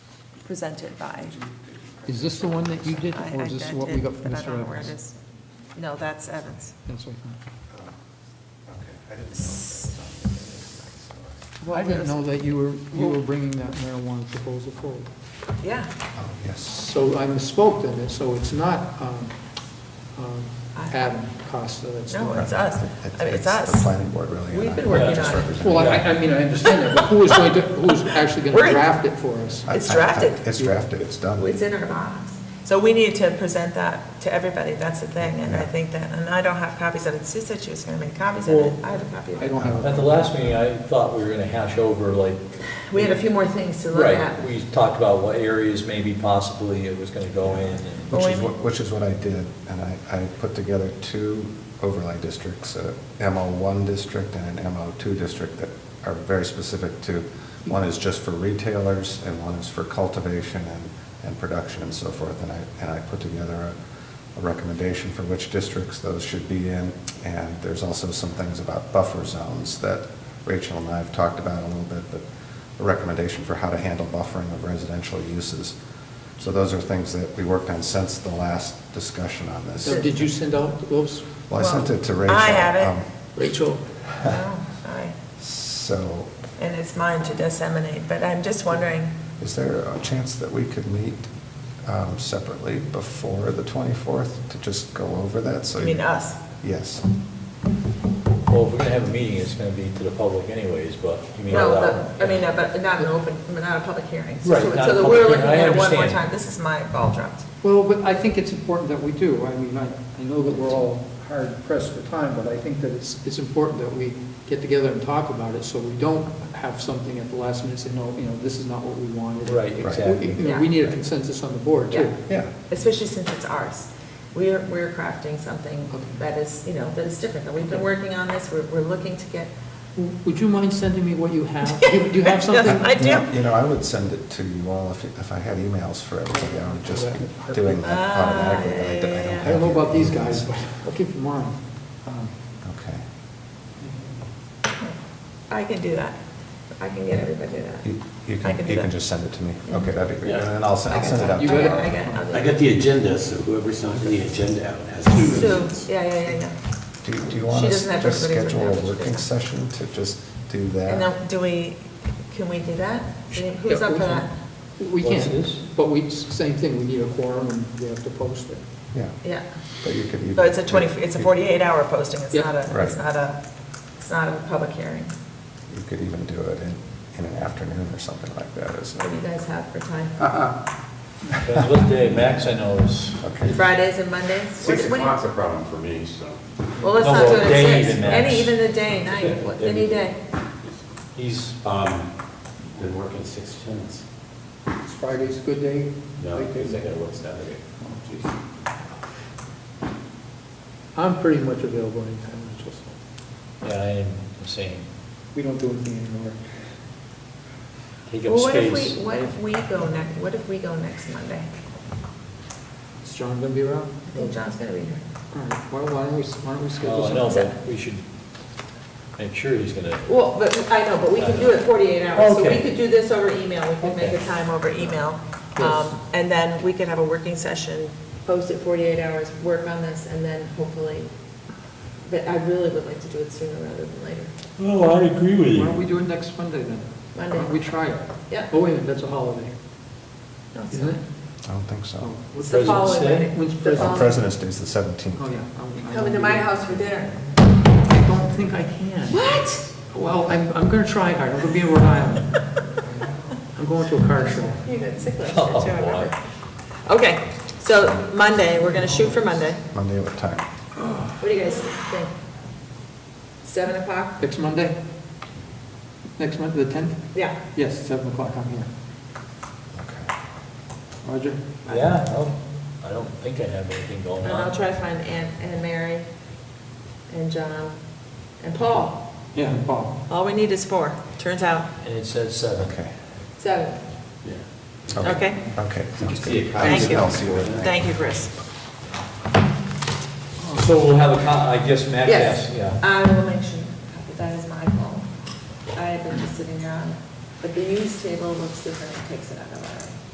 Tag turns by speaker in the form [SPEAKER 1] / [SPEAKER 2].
[SPEAKER 1] presented by.
[SPEAKER 2] Is this the one that you did,
[SPEAKER 1] I-
[SPEAKER 2] or
[SPEAKER 1] I
[SPEAKER 2] is this what we
[SPEAKER 1] did,
[SPEAKER 2] got from
[SPEAKER 1] but I don't
[SPEAKER 2] Mr.
[SPEAKER 1] know where it
[SPEAKER 2] Evans?
[SPEAKER 1] is. No, that's Evans.
[SPEAKER 2] That's what I
[SPEAKER 3] I didn't know that.
[SPEAKER 2] thought. I didn't know that you were, you were bringing that marijuana proposal forward.
[SPEAKER 1] Yeah,
[SPEAKER 3] Oh, yes.
[SPEAKER 2] So I misspoke then, so it's not um, um, Adam Costa that's
[SPEAKER 1] no,
[SPEAKER 2] doing it.
[SPEAKER 1] it's us. I mean, it's
[SPEAKER 3] The
[SPEAKER 1] us.
[SPEAKER 3] planning board really.
[SPEAKER 1] We've
[SPEAKER 3] and I-
[SPEAKER 1] been working
[SPEAKER 3] just
[SPEAKER 1] on it.
[SPEAKER 3] represent-
[SPEAKER 2] Well, I, I mean, I understand that, but who is going to, who's actually going
[SPEAKER 1] We're
[SPEAKER 2] to
[SPEAKER 1] in-
[SPEAKER 2] draft it for us?
[SPEAKER 3] I-
[SPEAKER 1] It's
[SPEAKER 3] I- I-
[SPEAKER 1] drafted.
[SPEAKER 3] It's drafted, it's done.
[SPEAKER 1] Oh, It's in our box. So we need to present that to everybody, that's the thing, and I think that, and I don't have copies of it. Sue said she was gonna make copies of it.
[SPEAKER 2] Well,
[SPEAKER 1] I have a copy of
[SPEAKER 2] I
[SPEAKER 1] it.
[SPEAKER 2] don't have,
[SPEAKER 4] At
[SPEAKER 2] a-
[SPEAKER 4] the last meeting, I thought we were gonna hash over like.
[SPEAKER 1] We had a few more things to look at.
[SPEAKER 4] Right, we talked about what areas maybe possibly it was gonna go in and.
[SPEAKER 1] Oh.
[SPEAKER 3] Which is, what- which is what I did, and I, I put together two overlay districts, a MO1 district and an MO2 district that are very specific to, one is just for retailers, and one is for cultivation and, and production and so forth, and I, and I put together a, a recommendation for which districts those should be in, and there's also some things about buffer zones that Rachel and I have talked about a little bit, but a recommendation for how to handle buffering of residential uses. So those are things that we worked on since the last discussion on this.
[SPEAKER 2] so did you send out those,
[SPEAKER 3] Well, I sent it to
[SPEAKER 1] Well,
[SPEAKER 3] Rachel.
[SPEAKER 1] I have it.
[SPEAKER 3] um,
[SPEAKER 2] Rachel?
[SPEAKER 1] Oh, sorry.
[SPEAKER 3] So
[SPEAKER 1] And it's mine to disseminate, but I'm just wondering,
[SPEAKER 3] is there a chance that we could meet um, separately before the 24th to just go over that? So
[SPEAKER 1] I mean, uh, us.
[SPEAKER 3] Yes.
[SPEAKER 4] Well, if we're gonna have a meeting, it's gonna be to the public anyways, but you mean.
[SPEAKER 1] No,
[SPEAKER 4] allow-
[SPEAKER 1] the- I mean, uh, but not an open, not a public hearing. So-
[SPEAKER 4] Right,
[SPEAKER 1] so-
[SPEAKER 4] not a
[SPEAKER 1] So
[SPEAKER 4] public
[SPEAKER 1] we're looking
[SPEAKER 4] hearing, I
[SPEAKER 1] at it one more
[SPEAKER 4] understand.
[SPEAKER 1] time. This is my ball dropped.
[SPEAKER 2] Well, but I think it's important that we do. I mean, I, I know that we're all hard pressed for time, but I think that it's, it's important that we get together and talk about it, so we don't have something at the last minute say, no, you know, this is not what we wanted.
[SPEAKER 4] Right,
[SPEAKER 3] Right.
[SPEAKER 2] We-
[SPEAKER 4] exactly.
[SPEAKER 2] you know, We need a consensus on the board, too.
[SPEAKER 1] Yeah.
[SPEAKER 3] Yeah.
[SPEAKER 1] especially since it's ours. We're, we're crafting something
[SPEAKER 2] Okay.
[SPEAKER 1] that is, you know, that is different. And We've been
[SPEAKER 2] Okay.
[SPEAKER 1] working on this, we're, we're looking to get.
[SPEAKER 2] W- Would you mind sending me what you have? Do you- do you have something?
[SPEAKER 1] I do.
[SPEAKER 3] You know, I would send it to you all if, if I had emails for everybody. I would just be doing that
[SPEAKER 1] Ah,
[SPEAKER 3] automatically. but I don't-
[SPEAKER 1] yeah, yeah, yeah.
[SPEAKER 2] I don't know
[SPEAKER 3] have
[SPEAKER 2] about
[SPEAKER 3] your
[SPEAKER 2] these guys,
[SPEAKER 3] emails.
[SPEAKER 2] but I'll give you mine. Um,
[SPEAKER 3] Okay.
[SPEAKER 1] I can do that. I can get everybody to that.
[SPEAKER 3] You you
[SPEAKER 1] I can
[SPEAKER 3] can,
[SPEAKER 1] do
[SPEAKER 3] you
[SPEAKER 1] that.
[SPEAKER 3] can just send it to me. Okay, that'd be great.
[SPEAKER 5] Yeah.
[SPEAKER 3] And then I'll, send- I'll send it
[SPEAKER 1] I
[SPEAKER 3] out to
[SPEAKER 2] You
[SPEAKER 3] you.
[SPEAKER 1] got it,
[SPEAKER 2] got it?
[SPEAKER 1] I got it, I'll do
[SPEAKER 5] I
[SPEAKER 1] it.
[SPEAKER 5] got the agenda, so whoever's not in the agenda out has to.
[SPEAKER 1] So, yeah, yeah, yeah, yeah.
[SPEAKER 3] Do you- do you
[SPEAKER 1] She
[SPEAKER 3] want us
[SPEAKER 1] doesn't have
[SPEAKER 3] to
[SPEAKER 1] everybody's
[SPEAKER 3] schedule a
[SPEAKER 1] emails, she
[SPEAKER 3] working
[SPEAKER 1] doesn't.
[SPEAKER 3] session to just do that?
[SPEAKER 1] And then, do we, can we do that? I mean, Who's
[SPEAKER 2] Yeah,
[SPEAKER 1] up
[SPEAKER 2] we
[SPEAKER 1] for that?
[SPEAKER 2] We
[SPEAKER 4] What's
[SPEAKER 2] can,
[SPEAKER 4] this?
[SPEAKER 2] but we, same thing, we need a quorum and we have to post it.
[SPEAKER 3] Yeah,
[SPEAKER 1] Yeah.
[SPEAKER 3] but you could.
[SPEAKER 1] So it's a 20, it's a 48-hour posting, it's
[SPEAKER 2] Yeah.
[SPEAKER 1] not a, it's
[SPEAKER 3] Right.
[SPEAKER 1] not a, it's not a public hearing.
[SPEAKER 3] You could even do it in, in an afternoon or something like that, isn't
[SPEAKER 1] What do you
[SPEAKER 3] it?
[SPEAKER 1] guys have for time?
[SPEAKER 3] Ah.
[SPEAKER 4] That's what day, Max, I know is.
[SPEAKER 3] Okay.
[SPEAKER 1] Fridays and Mondays? What-
[SPEAKER 6] Six
[SPEAKER 1] what do you-
[SPEAKER 6] o'clock's a problem for me, so.
[SPEAKER 1] Well, let's
[SPEAKER 4] No,
[SPEAKER 1] not do it
[SPEAKER 4] well, day
[SPEAKER 1] at six.
[SPEAKER 4] even, Max.
[SPEAKER 1] Any, even the day, night, what- any day.
[SPEAKER 4] He's,
[SPEAKER 5] Um, Been working six tenths.
[SPEAKER 2] Is Friday's a good day?
[SPEAKER 5] No,
[SPEAKER 2] Great day?
[SPEAKER 5] because I gotta work Saturday.
[SPEAKER 2] I'm pretty much available anytime, Mitchell, so
[SPEAKER 4] yeah, I am the same.
[SPEAKER 2] we don't do anything anymore.
[SPEAKER 4] Take up
[SPEAKER 1] Well, what if
[SPEAKER 4] space.
[SPEAKER 1] we, what if we go next, what if we go next Monday?
[SPEAKER 2] Is John going to be around?
[SPEAKER 1] I think John's gonna be here.
[SPEAKER 2] All right, why why don't we, why don't we schedule
[SPEAKER 4] Well, Oh, I
[SPEAKER 2] something?
[SPEAKER 4] know, but we should make sure he's gonna.
[SPEAKER 1] Well, but, I know, but we can do it forty-eight hours, so we
[SPEAKER 4] Okay.
[SPEAKER 1] could do this over email, we could make a
[SPEAKER 4] Okay.
[SPEAKER 1] time over email.
[SPEAKER 2] Yes.
[SPEAKER 1] Um, and then we could have a working session, post it forty-eight hours, work on this, and then hopefully, but I really would like to do it sooner rather than later.
[SPEAKER 5] Oh, I agree with
[SPEAKER 2] Why don't we do it next Monday then?
[SPEAKER 1] Monday.
[SPEAKER 2] Why don't we try it?
[SPEAKER 1] Yeah.
[SPEAKER 2] Oh, wait a minute, that's a holiday,
[SPEAKER 1] No, it's
[SPEAKER 2] isn't it?
[SPEAKER 1] not.
[SPEAKER 3] I don't think so.
[SPEAKER 2] Oh,
[SPEAKER 1] It's
[SPEAKER 2] what's-
[SPEAKER 1] the
[SPEAKER 4] President's
[SPEAKER 1] following
[SPEAKER 4] Day?
[SPEAKER 1] Monday.
[SPEAKER 2] When's
[SPEAKER 1] The
[SPEAKER 2] President's
[SPEAKER 1] following-
[SPEAKER 3] President's Day is the
[SPEAKER 2] Oh,
[SPEAKER 3] 17th.
[SPEAKER 2] yeah. I'm- I
[SPEAKER 1] Coming to
[SPEAKER 2] won't
[SPEAKER 1] my
[SPEAKER 2] be-
[SPEAKER 1] house for dinner.
[SPEAKER 2] I don't think I can.
[SPEAKER 1] What?
[SPEAKER 2] Well, I'm, I'm going to try hard, I'm going to be in Rhode Island. I'm going to a car show.
[SPEAKER 1] You got sick last year,
[SPEAKER 4] Oh,
[SPEAKER 1] too, I remember.
[SPEAKER 4] boy.
[SPEAKER 1] Okay, so Monday, we're gonna shoot for Monday.
[SPEAKER 3] Monday, what time?
[SPEAKER 1] What do you guys think? Seven o'clock?
[SPEAKER 2] Next Monday? Next Monday, the 10th?
[SPEAKER 1] Yeah.
[SPEAKER 2] Yes, 7 o'clock, I'm here.
[SPEAKER 3] Okay.
[SPEAKER 2] Roger?
[SPEAKER 4] Yeah, I'll- I don't think I have anything going
[SPEAKER 1] And
[SPEAKER 4] on.
[SPEAKER 1] I'll try to find Ann and Mary and John and Paul.
[SPEAKER 2] Yeah, and Paul.
[SPEAKER 1] All we need is four, turns out,
[SPEAKER 4] And it says seven.
[SPEAKER 3] Okay.
[SPEAKER 1] seven.
[SPEAKER 5] Yeah.
[SPEAKER 1] Okay.
[SPEAKER 3] Okay, sounds
[SPEAKER 5] See you,
[SPEAKER 3] good.
[SPEAKER 5] Kyle.
[SPEAKER 1] Thank you.
[SPEAKER 3] I'll see what-
[SPEAKER 1] Thank you, Chris.
[SPEAKER 4] So we'll have a, co- I guess Max asked, yeah.
[SPEAKER 1] I will make sure, that is my fault. I have been just sitting here on it, but the news table looks different, it takes it out of our.